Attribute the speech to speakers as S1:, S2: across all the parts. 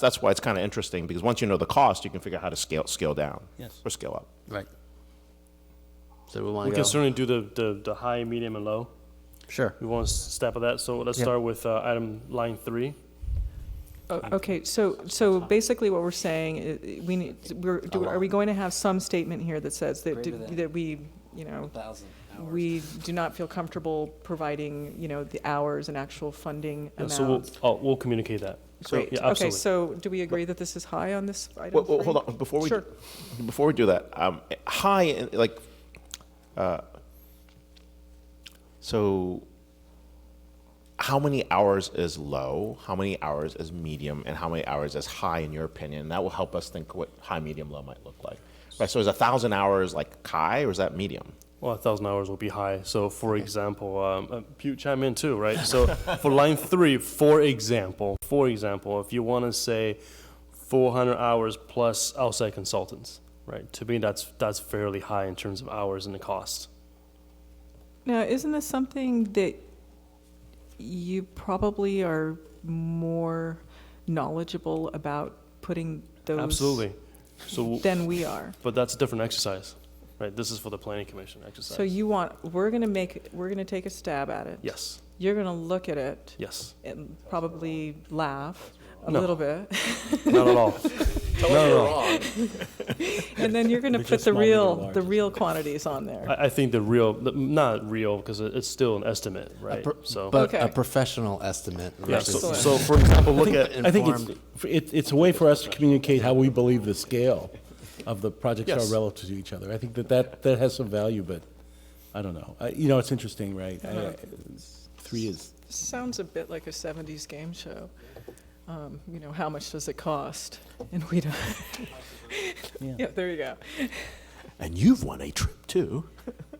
S1: That's why it's kind of interesting, because once you know the cost, you can figure out how to scale, scale down.
S2: Yes.
S1: Or scale up.
S2: Right.
S3: So we
S4: We
S3: want to
S4: can
S3: go.
S4: certainly do the, the, the high, medium, and low.
S3: Sure.
S4: We want to step of that, so let's start with uh, item line three.
S5: O- Uh, Okay, so, so basically what we're saying, i- i- we need, we're, do- are we going to have some statement here that says that,
S2: Greater than.
S5: that we, you know,
S2: Thousand hours.
S5: we do not feel comfortable providing, you know, the hours and actual funding
S4: Yeah, So we'll,
S5: amounts?
S4: oh, we'll communicate that. So,
S5: Great,
S4: yeah,
S5: okay,
S4: absolutely.
S5: so do we agree that this is high on this item?
S1: Well, well,
S5: three?
S1: hold on, before we,
S5: Sure.
S1: before we do that, um, high, uh, like, uh, so how many hours is low, how many hours is medium, and how many hours is high in your opinion? That will help us think what high, medium, low might look like. Right, so is a thousand hours like high, or is that medium?
S4: Well, a thousand hours will be high, so for example, um, uh, Pew chime in too, right? So for line three, for example, for example, if you want to say four hundred hours plus outside consultants, right? To me, that's, that's fairly high in terms of hours and the cost.
S5: Now, isn't this something that you probably are more knowledgeable about putting those?
S4: Absolutely. So,
S5: Than we are?
S4: but that's a different exercise, right? This is for the planning commission exercise.
S5: So you want, we're gonna make, we're gonna take a stab at it.
S4: Yes,
S5: You're gonna look at it
S4: yes.
S5: and probably laugh a
S4: No.
S5: little bit.
S4: Not at all. Not at all.
S5: And then you're gonna
S2: Which
S5: put
S2: is
S5: the
S2: small, medium,
S5: real,
S2: large,
S5: the
S2: isn't
S5: real quantities on there.
S4: I, I think the real, the, not real, because it, it's still an estimate, right?
S3: Pro-
S4: so,
S3: But
S5: Okay.
S3: a professional estimate
S4: yeah,
S3: versus.
S4: so,
S5: Excellent.
S4: so for example, look at,
S3: think-
S6: I think it's,
S3: informed.
S6: it, it's a way for us to communicate how we believe the scale of the projects
S4: Yes.
S6: are relative to each other. I think that that, that has some value, but I don't know. I- You know, it's interesting, right? I- Three is,
S5: This Sounds a bit like a seventies game show. Um, you know, how much does it cost? And we don't. Yeah, there you go.
S1: And you've won a trip too.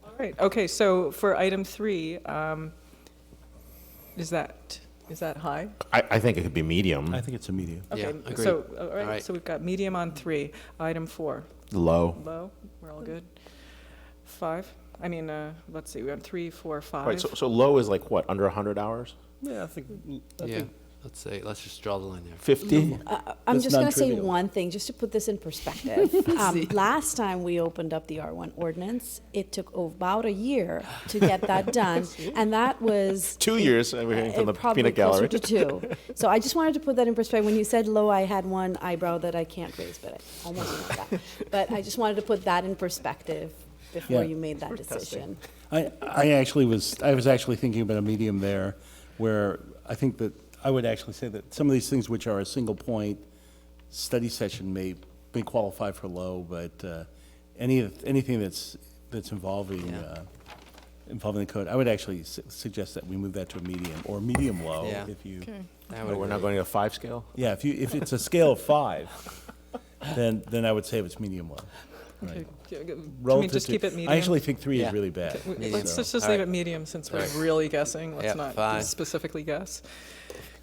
S5: All right, okay, so for item three, um, is that, is that high?
S1: I, I think it could be medium,
S6: I think it's immediate.
S5: Okay,
S3: Yeah,
S5: So,
S3: agreed.
S5: all
S3: All
S5: right,
S3: right.
S5: so we've got medium on three. Item four,
S1: low.
S5: low, we're all good. Five, I mean, uh, let's see, we have three, four,
S1: Right,
S5: five.
S1: so, so low is like what, under 100 hours?
S4: yeah, I think, I
S3: Yeah,
S4: think
S3: let's say, let's just draw the line there.
S1: 50?
S7: I- I'm
S6: That's
S7: just going to say
S6: non-trivial.
S7: one thing, just to put this in perspective. Um, Last time we opened up the R1 ordinance, it took about a year to get that done, and that was.
S1: Two years, and we're hearing from the
S7: uh, probably
S1: peanut
S7: closer
S1: gallery.
S7: to two. So I just wanted to put that in perspective. When you said low, I had one eyebrow that I can't raise, but I almost know that. But I just wanted to put that in perspective before
S6: Yeah.
S7: you made that decision.
S6: I, I actually was, I was actually thinking about a medium there where I think that, I would actually say that some of these things which are a single point study session may, may qualify for low, but uh, any, of- anything that's, that's involving, uh, involving the code, I would actually su- suggest that we move that to a medium or medium low
S3: Yeah.
S6: if you,
S3: I would
S1: But we're not
S3: agree.
S1: going to a five scale?
S6: yeah, if you, if it's a scale of five, then, then I would say it's medium low.
S5: Okay, g- g- Can we
S6: Relative
S5: just
S6: to-
S5: keep it medium?
S6: I actually think three
S3: Yeah.
S6: is really bad.
S5: W-
S3: medium.
S5: Let's just just
S3: All
S5: leave
S3: right.
S5: it medium, since we're
S3: All right.
S5: really guessing, let's
S3: Yeah,
S5: not
S3: fine.
S5: specifically guess.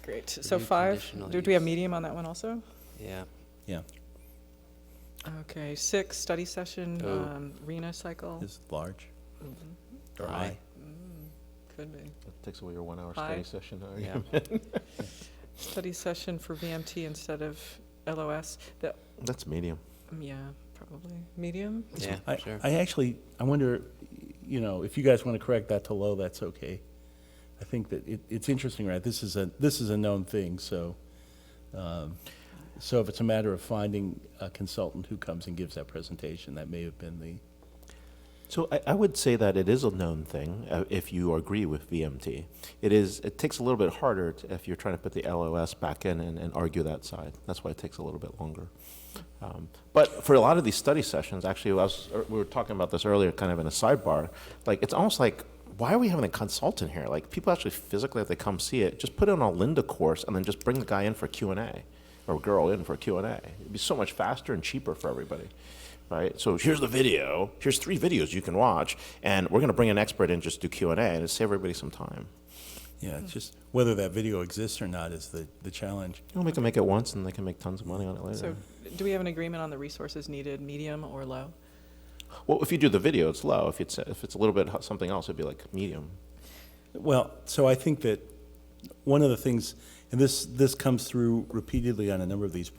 S5: Great, so
S3: Review
S5: five,
S3: conditional
S5: do do we have
S3: use.
S5: medium on that one also?
S3: Yeah,
S6: Yeah,
S5: Okay, six, study session,
S3: Oh.
S5: um, Reno cycle,
S6: it's large. Or
S3: Aye.
S6: high.
S5: could be.
S1: That takes away your one hour
S5: Five.
S1: study session. huh?
S3: yeah.
S5: Study session for VMT instead of LOS, the,
S1: That's medium.
S5: um, yeah, probably, medium?
S6: I,
S3: Yeah, sure.
S6: I actually, I wonder, you know, if you guys want to correct that to low, that's okay. I think that it, it's interesting, right? This is a, this is a known thing, so, um, so if it's a matter of finding a consultant who comes and gives that presentation, that may have been the,
S1: So I, I would say that it is a known thing uh, if you agree with VMT. It is. It takes a little bit harder to, if you're trying to put the LOS back in and, and argue that side. That's why it takes a little bit longer. Um, but for a lot of these study sessions, actually, I was, er, we were talking about this earlier, kind of in a sidebar. Like it's almost like why are we having a consultant here? Like people actually physically have to come see it. Just put it on a Linda course and then just bring the guy in for Q and A or girl in for Q and A. It'd be so much faster and cheaper for everybody right? So here's the video. Here's three videos you can watch, and we're going to bring an expert in just do Q and A, and it save everybody some time.
S6: yeah, it's just whether that video exists or not is the, the challenge.
S1: You know, we can make it once, and they can make tons of money on it later.
S5: So, do we have an agreement on the resources needed, medium or low?
S1: well, if you do the video, it's low. If it's if it's a little bit h- something else, it'd be like medium.
S6: Well, so I think that one of the things, And this, this comes through repeatedly on a number of these